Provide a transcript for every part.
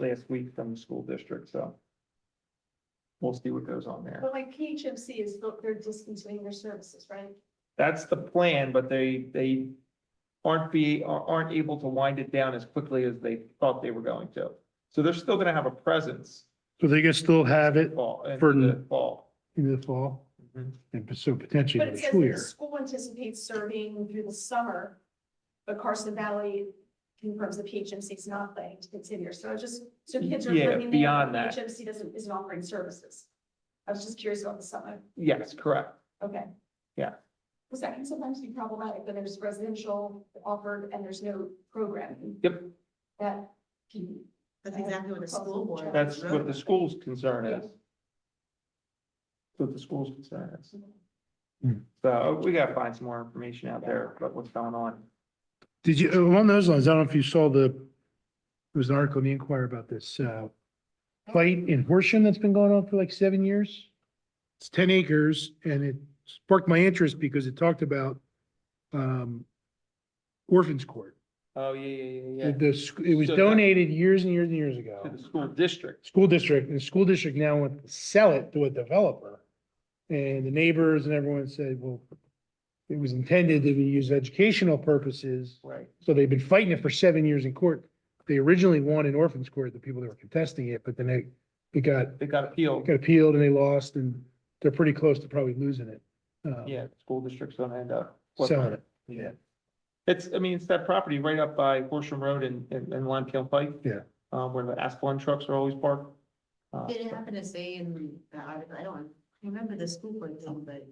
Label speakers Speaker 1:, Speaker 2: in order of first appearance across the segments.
Speaker 1: last week from the school district, so. We'll see what goes on there.
Speaker 2: But like PHMC is, not- they're discontinuing their services, right?
Speaker 1: That's the plan, but they, they aren't be, are- aren't able to wind it down as quickly as they thought they were going to. So they're still gonna have a presence
Speaker 3: So they can still have it
Speaker 1: fall, in
Speaker 3: For-
Speaker 1: the fall.
Speaker 3: in the fall
Speaker 1: Mhm.
Speaker 3: and so potentially
Speaker 2: But
Speaker 3: in
Speaker 2: it
Speaker 3: the
Speaker 2: says
Speaker 3: school
Speaker 2: that the
Speaker 3: year.
Speaker 2: school anticipates serving through the summer, but Carson Valley confirms the PHMC is not planning to continue. So I just, so kids are.
Speaker 1: Yeah,
Speaker 2: living there,
Speaker 1: beyond
Speaker 2: but
Speaker 1: that.
Speaker 2: PHMC doesn't, isn't offering services. I was just curious about the summer.
Speaker 1: Yes, correct.
Speaker 2: Okay.
Speaker 1: Yeah.
Speaker 2: Because that can sometimes be problematic, when there's residential offered and there's no programming
Speaker 1: Yep,
Speaker 2: that can.
Speaker 4: That's exactly what a school board. would
Speaker 1: that's
Speaker 4: really-
Speaker 1: what the school's concern is. That's What the school's concern is.
Speaker 3: Hmm.
Speaker 1: So we gotta find some more information out there about what's going on.
Speaker 3: Did you, uh, along those lines, I don't know if you saw the, there was an article in the Inquirer about this, uh, fight in Horsham that's been going on for like seven years. It's ten acres and it sparked my interest because it talked about, um, orphans court.
Speaker 1: Oh, yeah, yeah, yeah,
Speaker 3: The- The, sc- it was
Speaker 1: So that-
Speaker 3: donated years and years and years ago.
Speaker 1: To the school district.
Speaker 3: School district, and the school district now wants to sell it to a developer. And the neighbors and everyone said, well, it was intended to be used educational purposes.
Speaker 1: Right.
Speaker 3: So they've been fighting it for seven years in court. They originally won in orphans court, the people that were contesting it, but then they, it got,
Speaker 1: They got
Speaker 3: it
Speaker 1: appealed.
Speaker 3: got appealed and they lost and they're pretty close to probably losing it. Uh,
Speaker 1: Yeah, school district's gonna end up.
Speaker 3: Selling it.
Speaker 1: Yeah. It's, I mean, it's that property right up by Horsham Road and, and, and Lime Kiln Pike.
Speaker 3: Yeah.
Speaker 1: Um, where the Asplund trucks are always parked. Uh,
Speaker 4: Did it happen to say in the article, I don't remember the school board thing, but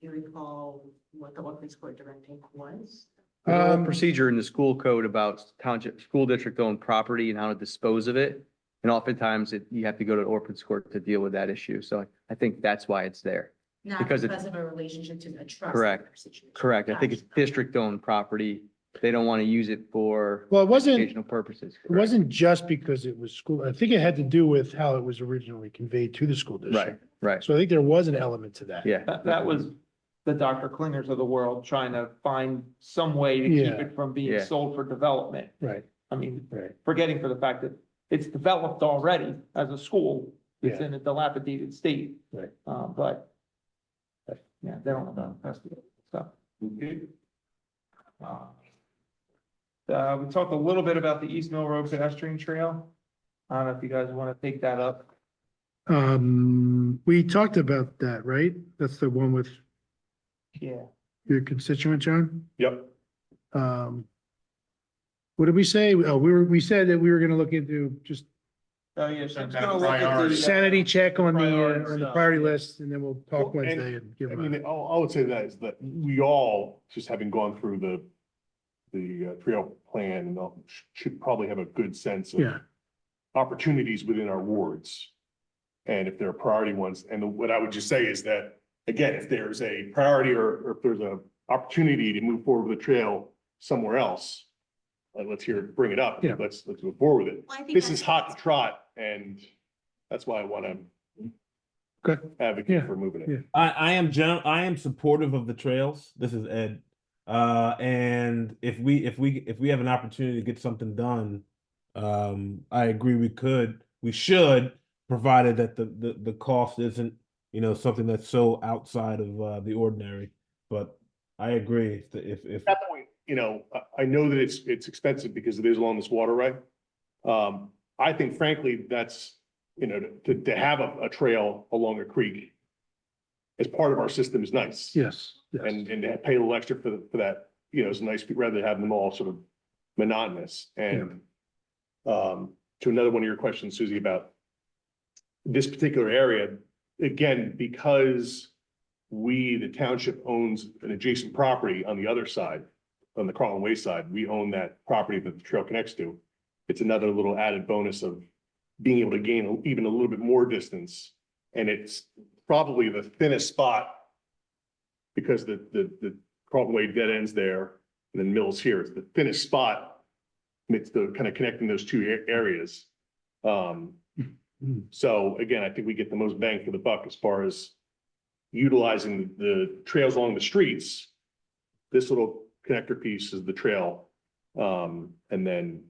Speaker 4: you recall what the orphan court directive was?
Speaker 5: There's a whole
Speaker 3: Um,
Speaker 5: procedure in the school code about township, school district owned property and how to dispose of it. And oftentimes it, you have to go to an orphans court to deal with that issue. So I think that's why it's there.
Speaker 4: Not
Speaker 5: Because it-
Speaker 4: because of a relationship to a trust.
Speaker 5: Correct.
Speaker 4: situation.
Speaker 5: Correct. I think it's
Speaker 4: Gotcha.
Speaker 5: district owned property. They don't want to use it for
Speaker 3: Well, it wasn't, it
Speaker 5: educational purposes. correct?
Speaker 3: wasn't just because it was school. I think it had to do with how it was originally conveyed to the school
Speaker 5: Right,
Speaker 3: district.
Speaker 5: right.
Speaker 3: So I think there was an element to that.
Speaker 5: Yeah.
Speaker 1: That, that was the Dr. Klingers of the world trying to find some way to keep
Speaker 3: Yeah.
Speaker 1: it from being
Speaker 5: Yeah.
Speaker 1: sold for development.
Speaker 3: Right,
Speaker 1: I mean,
Speaker 3: right.
Speaker 1: forgetting for the fact that it's developed already as a school. It's
Speaker 3: Yeah.
Speaker 1: in a dilapidated state.
Speaker 3: Right.
Speaker 1: Uh, but, but, yeah, they don't know about the stuff. Uh, uh, we talked a little bit about the East Mill Road pedestrian trail. I don't know if you guys want to take that up.
Speaker 3: Um, we talked about that, right? That's the one with
Speaker 1: Yeah.
Speaker 3: your constituent, John?
Speaker 1: Yep.
Speaker 3: Um, what did we say? Oh, we were, we said that we were gonna look into just
Speaker 1: Oh, yeah. so it's
Speaker 6: Some kind
Speaker 1: gonna
Speaker 6: of
Speaker 1: look at the, uh,
Speaker 3: sanity check on the,
Speaker 1: Priority
Speaker 3: uh, on the
Speaker 1: stuff,
Speaker 3: priority
Speaker 1: yeah.
Speaker 3: list, and then we'll talk
Speaker 6: Well, and-
Speaker 3: Wednesday and give
Speaker 6: I
Speaker 3: them.
Speaker 6: mean, all, all I would say to that is that we all, just having gone through the, the uh, trail plan, and all, sh- should probably have a good sense of
Speaker 3: Yeah,
Speaker 6: opportunities within our wards. And if there are priority ones, and what I would just say is that, again, if there's a priority or, or if there's a opportunity to move forward with a trail somewhere else, uh, let's hear, bring it up,
Speaker 3: Yeah.
Speaker 6: let's, let's move forward with it.
Speaker 4: Well, I think
Speaker 6: This
Speaker 4: that's-
Speaker 6: is hot to trot, and that's why I want to
Speaker 3: Okay.
Speaker 6: advocate
Speaker 3: Yeah,
Speaker 6: for moving it.
Speaker 3: yeah.
Speaker 7: I, I am gen- I am supportive of the trails. This is Ed. Uh, and if we if we if we have an opportunity to get something done, um, I agree we could we should provided that the the, the cost isn't you know something that's so outside of uh, the ordinary. But I agree if if, if
Speaker 6: that point, you know, I, I know that it's, it's expensive because it is along this water right. Um, I think frankly, that's, you know, to, to have a, a trail along a creek as part of our system is nice.
Speaker 3: yes, yes.
Speaker 6: And, and to pay a little extra for, for that, you know, is nice, rather than having them all sort of monotonous and um, to another one of your questions, Susie, about this particular area, again, because we, the township owns an adjacent property on the other side, on the Carlin Way side, we own that property that the trail connects to. It's another little added bonus of being able to gain even a little bit more distance. And it's probably the thinnest spot because the, the, the Carlton Way dead ends there and then Mills here. It's the thinnest spot. and It's the kind of connecting those two a- areas. Um, so again, I think we get the most bang for the buck as far as utilizing the trails along the streets. This little connector piece is the trail. Um, and then